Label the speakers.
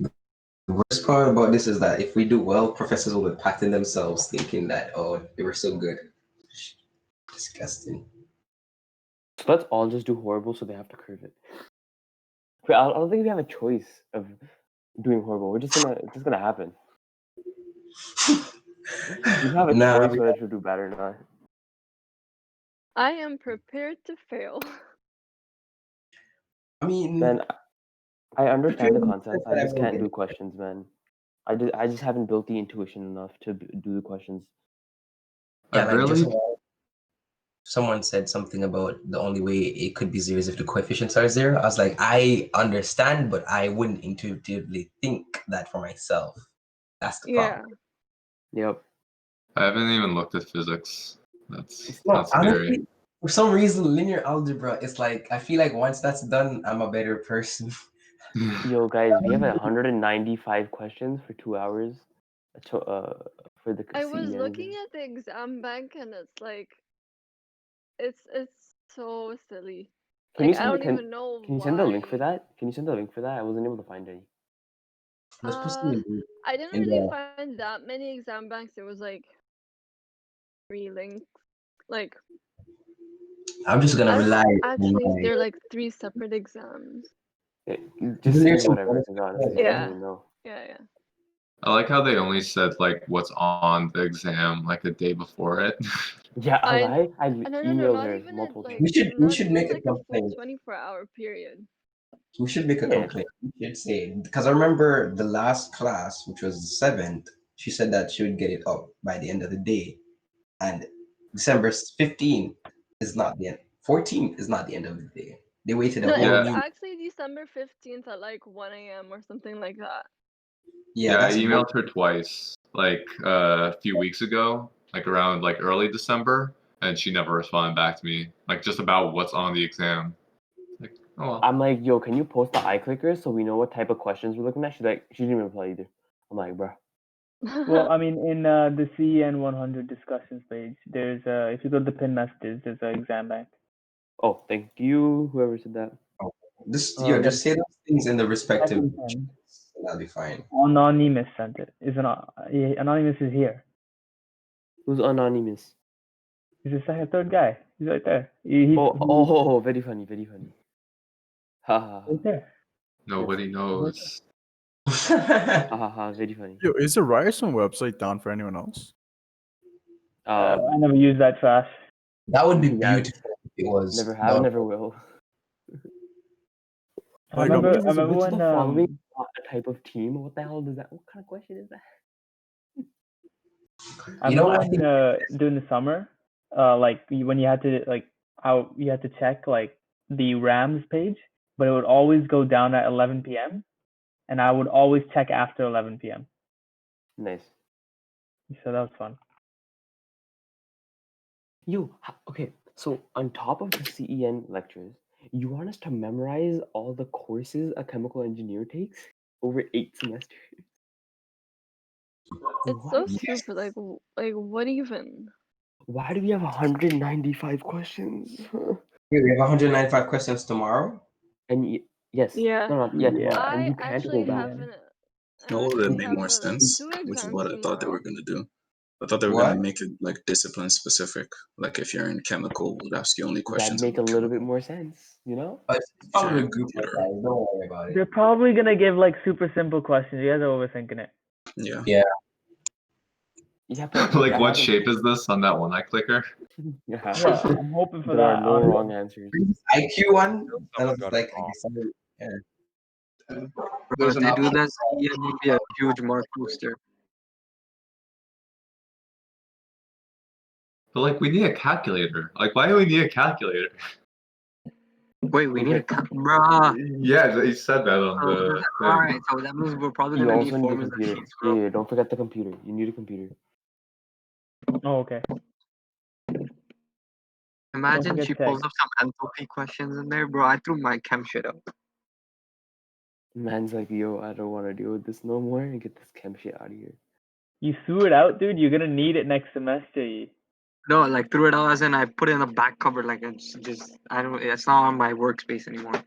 Speaker 1: The worst part about this is that if we do well, professors will be patting themselves, thinking that oh, they were so good. Disgusting.
Speaker 2: So let's all just do horrible so they have to curve it. But I I don't think we have a choice of doing horrible. We're just gonna it's just gonna happen. We have a
Speaker 1: Nah,
Speaker 2: choice whether to do bad or not.
Speaker 3: I am prepared to fail.
Speaker 1: I mean,
Speaker 2: Man, I I understand the
Speaker 1: Preparing myself
Speaker 2: concept. I
Speaker 1: that I
Speaker 2: just
Speaker 1: will
Speaker 2: can't
Speaker 1: get
Speaker 2: do questions, man. I just I just haven't built the intuition enough to b- do the questions.
Speaker 1: yeah, like
Speaker 4: really?
Speaker 1: just now, someone said something about the only way it could be zero is if the coefficients are zero. I was like, I understand, but I wouldn't intuitively think that for myself. That's the
Speaker 3: Yeah.
Speaker 1: problem.
Speaker 2: Yep.
Speaker 4: I haven't even looked at physics. That's
Speaker 1: No,
Speaker 4: that's very
Speaker 1: honestly, for some reason, linear algebra is like I feel like once that's done, I'm a better person.
Speaker 2: Yo, guys, we have 195 questions for two hours. uh, To, uh, for the E
Speaker 3: I was
Speaker 2: CEM.
Speaker 3: looking at the exam bank and it's like it's it's so silly.
Speaker 2: Can you
Speaker 3: Like, I
Speaker 2: send me-
Speaker 3: don't
Speaker 2: can-
Speaker 3: even know
Speaker 2: Can you send the link for
Speaker 3: why.
Speaker 2: that? Can you send the link for that? I wasn't able to find any.
Speaker 1: Let's post
Speaker 3: Uh,
Speaker 1: it in-
Speaker 3: I didn't
Speaker 1: And,
Speaker 3: really
Speaker 1: uh,
Speaker 3: find that many exam banks. It was like three links. Like
Speaker 1: I'm just
Speaker 3: I
Speaker 1: gonna
Speaker 3: don't
Speaker 1: rely.
Speaker 3: actually, they're like three separate exams.
Speaker 2: Yeah, Just
Speaker 1: Isn't there
Speaker 2: send me
Speaker 1: some
Speaker 2: whatever.
Speaker 1: bonus
Speaker 2: to be honest,
Speaker 1: points?
Speaker 2: I don't
Speaker 3: Yeah.
Speaker 2: even know.
Speaker 3: Yeah, yeah.
Speaker 4: I like how they only said like what's on the exam like the day before it.
Speaker 2: Yeah, I,
Speaker 3: I-
Speaker 2: lied. I
Speaker 3: Uh, No, no, no,
Speaker 2: emailed
Speaker 3: not
Speaker 2: her
Speaker 3: even at,
Speaker 2: multiple
Speaker 3: like
Speaker 2: times.
Speaker 1: We should- we
Speaker 3: not
Speaker 1: should
Speaker 3: even
Speaker 1: make
Speaker 3: at,
Speaker 1: a
Speaker 3: like a full
Speaker 1: complaint.
Speaker 3: twenty-four hour period.
Speaker 1: We should make a
Speaker 2: Yeah.
Speaker 1: complaint. We should say because I remember the last class, which was the seventh, she said that she would get it up by the end of the day, and December 15 is not the end. 14 is not the end of the day. They waited a
Speaker 3: No,
Speaker 1: whole
Speaker 3: it was
Speaker 1: new-
Speaker 3: actually December fifteenth at like one a.m. or something like that.
Speaker 1: yeah.
Speaker 4: Yeah, I
Speaker 1: that's-
Speaker 4: emailed her twice, like uh, a few weeks ago, like around like early December, and she never responded back to me, like just about what's on the exam. Like, oh, well.
Speaker 2: I'm like, yo, can you post the eye clicker so we know what type of questions we're looking at? She's like, she didn't even reply either. I'm like, bruh.
Speaker 5: Well, I mean, in uh, the CEN 100 discussions page, there's uh, if you go to the pin messages, there's an exam bank.
Speaker 2: Oh, thank you, whoever said that.
Speaker 1: Just
Speaker 3: Oh,
Speaker 5: Uh,
Speaker 1: yeah, just say those things in the respective.
Speaker 5: Second time,
Speaker 1: That'll be fine.
Speaker 5: Anonymous sent it. Is an anonymous is here.
Speaker 2: Who's anonymous?
Speaker 5: He's the second, third guy. He's right there. He- he's-
Speaker 2: Oh,
Speaker 5: he's
Speaker 2: oh, oh, oh, very funny, very funny. Ha ha ha.
Speaker 5: right there.
Speaker 4: nobody knows.
Speaker 2: Ha ha ha, very funny.
Speaker 6: Yo, is the Ryerson website down for anyone else?
Speaker 2: Uh,
Speaker 5: I never use that trash.
Speaker 1: that would be
Speaker 2: Yeah.
Speaker 1: beautiful. If it was
Speaker 2: never have,
Speaker 1: No,
Speaker 2: never will.
Speaker 5: I
Speaker 6: Like, I'm
Speaker 5: remember, I
Speaker 2: thinking it's a
Speaker 5: remember when
Speaker 2: vegetable farm.
Speaker 5: um,
Speaker 2: Not a type of team. What the hell does that? What kind of question is that?
Speaker 5: I
Speaker 1: You know,
Speaker 5: remember
Speaker 1: I
Speaker 5: when,
Speaker 1: think-
Speaker 5: uh, during the summer, uh, like you- when you had to like how you had to check like the Rams page, but it would always go down at 11 p.m. and I would always check after 11 p.m.
Speaker 2: Nice.
Speaker 5: So that was fun.
Speaker 2: You ha- okay? So on top of the CEN lectures, you want us to memorize all the courses a chemical engineer takes over eight semesters?
Speaker 3: it's so
Speaker 2: What?
Speaker 3: stupid. Like, w- like what even?
Speaker 2: Why do we have 195 questions?
Speaker 1: Wait, we have 195 questions tomorrow.
Speaker 2: and y- yes,
Speaker 3: Yeah.
Speaker 2: no, no, yeah,
Speaker 6: Yeah.
Speaker 2: tomorrow, and
Speaker 3: I
Speaker 2: you can't
Speaker 3: actually
Speaker 2: go back.
Speaker 3: haven't. I
Speaker 7: No, that
Speaker 3: actually
Speaker 7: made more
Speaker 3: have, uh,
Speaker 7: sense,
Speaker 3: two
Speaker 7: which is
Speaker 3: exams
Speaker 7: what I thought they
Speaker 3: tomorrow.
Speaker 7: were gonna do. I thought they were
Speaker 1: What?
Speaker 7: gonna make it like discipline specific. Like if you're in chemical, we'll ask you only
Speaker 2: That
Speaker 7: questions.
Speaker 2: make a
Speaker 7: on
Speaker 2: little
Speaker 7: chem-
Speaker 2: bit more sense, you know?
Speaker 1: But it's probably a group
Speaker 7: Sure.
Speaker 1: guys. Don't worry about it.
Speaker 5: They're probably gonna give like super simple questions. You guys are overthinking it.
Speaker 7: Yeah.
Speaker 2: Yeah, but
Speaker 4: like,
Speaker 2: that
Speaker 4: what
Speaker 2: happens-
Speaker 4: shape is this on that one eye clicker?
Speaker 2: Yeah.
Speaker 5: Yeah, I'm hoping for
Speaker 2: There are
Speaker 5: that.
Speaker 2: no
Speaker 5: honestly.
Speaker 2: wrong answers.
Speaker 1: IQ one. And I
Speaker 8: Someone
Speaker 1: was
Speaker 8: got it
Speaker 1: like, I
Speaker 8: wrong.
Speaker 1: guess I'm-
Speaker 9: Because they do that, yeah, it would be a huge mark booster.
Speaker 4: But like, we need a calculator. Like, why do we need a calculator?
Speaker 9: Wait, we need a cut, bruh.
Speaker 4: Yeah, they said that on the.
Speaker 9: Uh,
Speaker 4: thing.
Speaker 9: all right, so that means we're probably
Speaker 2: You
Speaker 9: gonna need
Speaker 2: also need a
Speaker 9: formulas and
Speaker 2: computer.
Speaker 9: sheets,
Speaker 2: Yeah,
Speaker 9: bro.
Speaker 2: yeah, don't forget the computer. You need a computer.
Speaker 5: Oh, okay.
Speaker 9: Imagine
Speaker 5: forget
Speaker 9: she
Speaker 5: tech.
Speaker 9: pulls up some enthalpy questions in there, bro. I threw my chem shit up.
Speaker 2: Man's like, yo, I don't want to deal with this no more and get this chem shit out of here.
Speaker 5: You threw it out, dude. You're gonna need it next semester. Yi.
Speaker 9: No, like threw it out as in I put it in the back cupboard. Like it's just I don't. It's not on my workspace anymore.